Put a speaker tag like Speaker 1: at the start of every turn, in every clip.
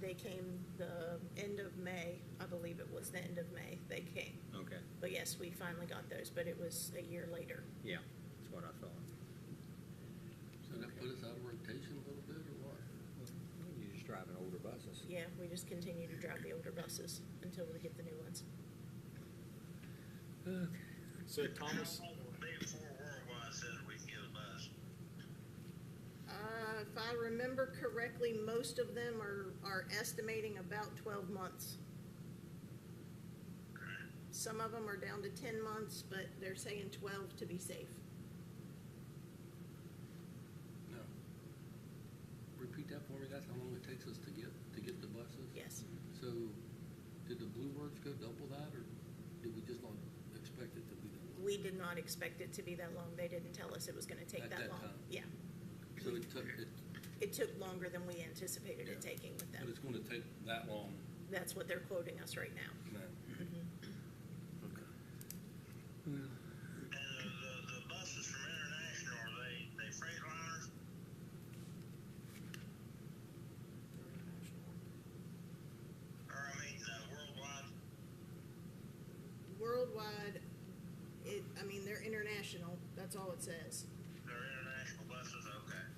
Speaker 1: they came the end of May, I believe it was the end of May they came.
Speaker 2: Okay,
Speaker 1: But yes, we finally got those, but it was a year later.
Speaker 2: yeah, that's what I thought.
Speaker 3: So that put us out of rotation a little bit, or what?
Speaker 2: You're just driving older buses.
Speaker 1: Yeah, we just continue to drive the older buses until we get the new ones.
Speaker 2: Okay.
Speaker 4: So Thomas,
Speaker 5: How long will they before Worldwide says we can get a bus?
Speaker 1: Uh, if I remember correctly, most of them are, are estimating about twelve months. Some of them are down to ten months, but they're saying twelve to be safe.
Speaker 3: No. Repeat that for me, that's how long it takes us to get, to get the buses?
Speaker 1: Yes.
Speaker 3: So, did the Blue Birds go double that, or did we just not expect it to be that long?
Speaker 1: We did not expect it to be that long. They didn't tell us it was gonna take
Speaker 3: At
Speaker 1: that
Speaker 3: that
Speaker 1: long.
Speaker 3: time.
Speaker 1: Yeah.
Speaker 3: So it took, it,
Speaker 1: It took longer than we anticipated it
Speaker 3: Yeah.
Speaker 1: taking with
Speaker 3: but
Speaker 1: them.
Speaker 3: it's gonna take that long
Speaker 1: That's what they're quoting us right now.
Speaker 3: now?
Speaker 1: Mm-hmm.
Speaker 3: Okay.
Speaker 5: And the, the, the buses from International, are they, they Freightliners? Or I mean, uh, Worldwide?
Speaker 1: Worldwide, it, I mean, they're international. That's all it says.
Speaker 5: They're international buses, okay.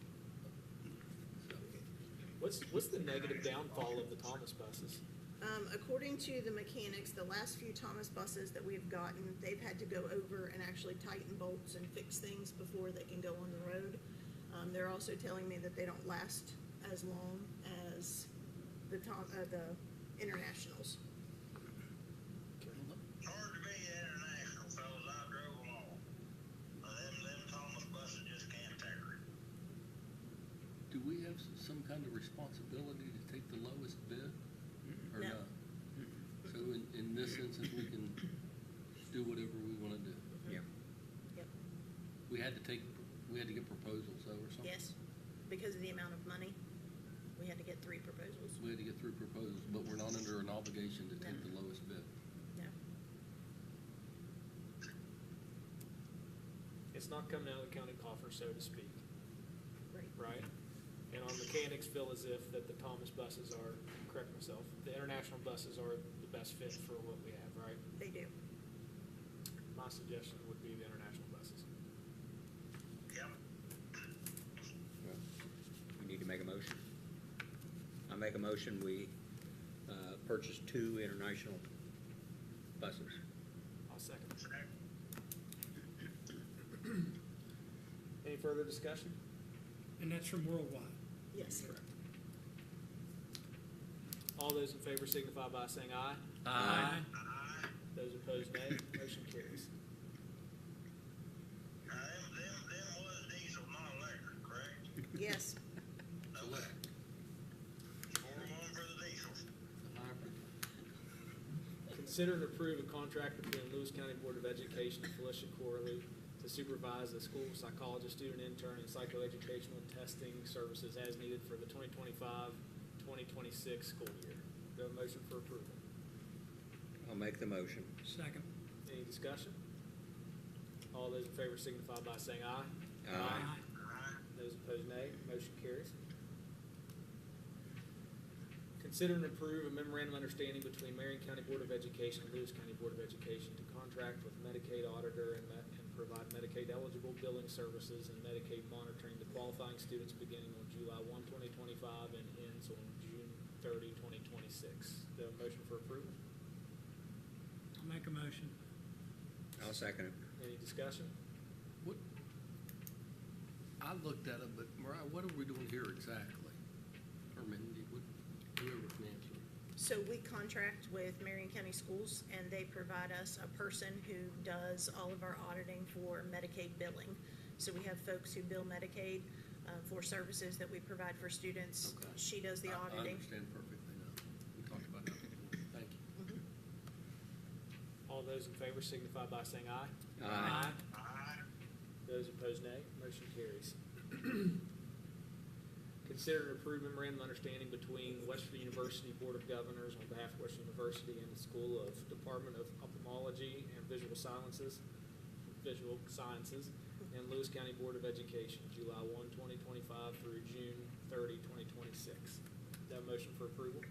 Speaker 4: what's, what's the negative downfall of the Thomas buses?
Speaker 1: Um, according to the mechanics, the last few Thomas buses that we've gotten, they've had to go over and actually tighten bolts and fix things before they can go on the road. Um, they're also telling me that they don't last as long as the Tom, uh, the internationals.
Speaker 5: Hard to be international, fellas, I drove them all. Uh, them, them Thomas buses just can't take it.
Speaker 3: Do we have s- some kind of responsibility to take the lowest bid, or
Speaker 1: No.
Speaker 3: not? So in, in this instance, we can do whatever we wanna do?
Speaker 2: Yeah,
Speaker 1: Yep.
Speaker 3: We had to take, we had to get proposals though or something?
Speaker 1: Yes, because of the amount of money, we had to get three proposals.
Speaker 3: We had to get through proposals, but we're not under an obligation to take the lowest bid.
Speaker 1: No,
Speaker 4: It's not coming out of the county coffer, so to speak,
Speaker 1: right.
Speaker 4: right? And our mechanics feel as if that the Thomas buses are, correct myself, the international buses are the best fit for what we have, right?
Speaker 1: They do.
Speaker 4: My suggestion would be the international buses.
Speaker 5: Yep.
Speaker 2: well, we need to make a motion. I make a motion, we, uh, purchase two international buses.
Speaker 4: I'll second.
Speaker 5: Second.
Speaker 4: Any further discussion?
Speaker 6: And that's from worldwide.
Speaker 1: Yes.
Speaker 4: All those in favor signify by saying aye.
Speaker 2: Aye.
Speaker 5: Aye.
Speaker 4: Those opposed, nay. Motion carries.
Speaker 5: Now, them, them, them was diesel, not electric, correct?
Speaker 1: Yes,
Speaker 3: Select,
Speaker 5: Four to one for the diesel.
Speaker 3: the hybrid.
Speaker 4: Consider and approve a contract between Lewis County Board of Education and Felicia Corley to supervise the school psychologist, student intern, and psychoeducational testing services as needed for the 2025-2026 school year. Do I have a motion for approval?
Speaker 2: I'll make the motion.
Speaker 6: Second.
Speaker 4: Any discussion? All those in favor signify by saying aye.
Speaker 2: Aye.
Speaker 5: Aye.
Speaker 4: Those opposed, nay. Motion carries. Consider and approve a memorandum of understanding between Marion County Board of Education and Lewis County Board of Education to contract with Medicaid auditor and met, and provide Medicaid eligible billing services and Medicaid monitoring to qualifying students beginning on July 1, 2025, and ends on June 30, 2026. Do I have a motion for approval?
Speaker 6: I'll make a motion.
Speaker 2: I'll second it.
Speaker 4: Any discussion?
Speaker 3: What, I looked at it, but Mariah, what are we doing here exactly? Or Mindy, what, whoever can answer.
Speaker 1: so we contract with Marion County Schools, and they provide us a person who does all of our auditing for Medicaid billing. So we have folks who bill Medicaid uh, for services that we provide for students.
Speaker 3: Okay.
Speaker 1: She does the
Speaker 3: I- I
Speaker 1: auditing.
Speaker 3: understand perfectly now. We talked about that before. Thank you.
Speaker 4: All those in favor signify by saying aye.
Speaker 2: Aye.
Speaker 5: Aye.
Speaker 4: Those opposed, nay. Motion carries. Consider and approve memorandum of understanding between Western University Board of Governors on behalf of Western University and the School of Department of Ophthalmology and Visual Sciences, Visual Sciences, and Lewis County Board of Education, July 1, 2025 through June 30, 2026. That motion for approval?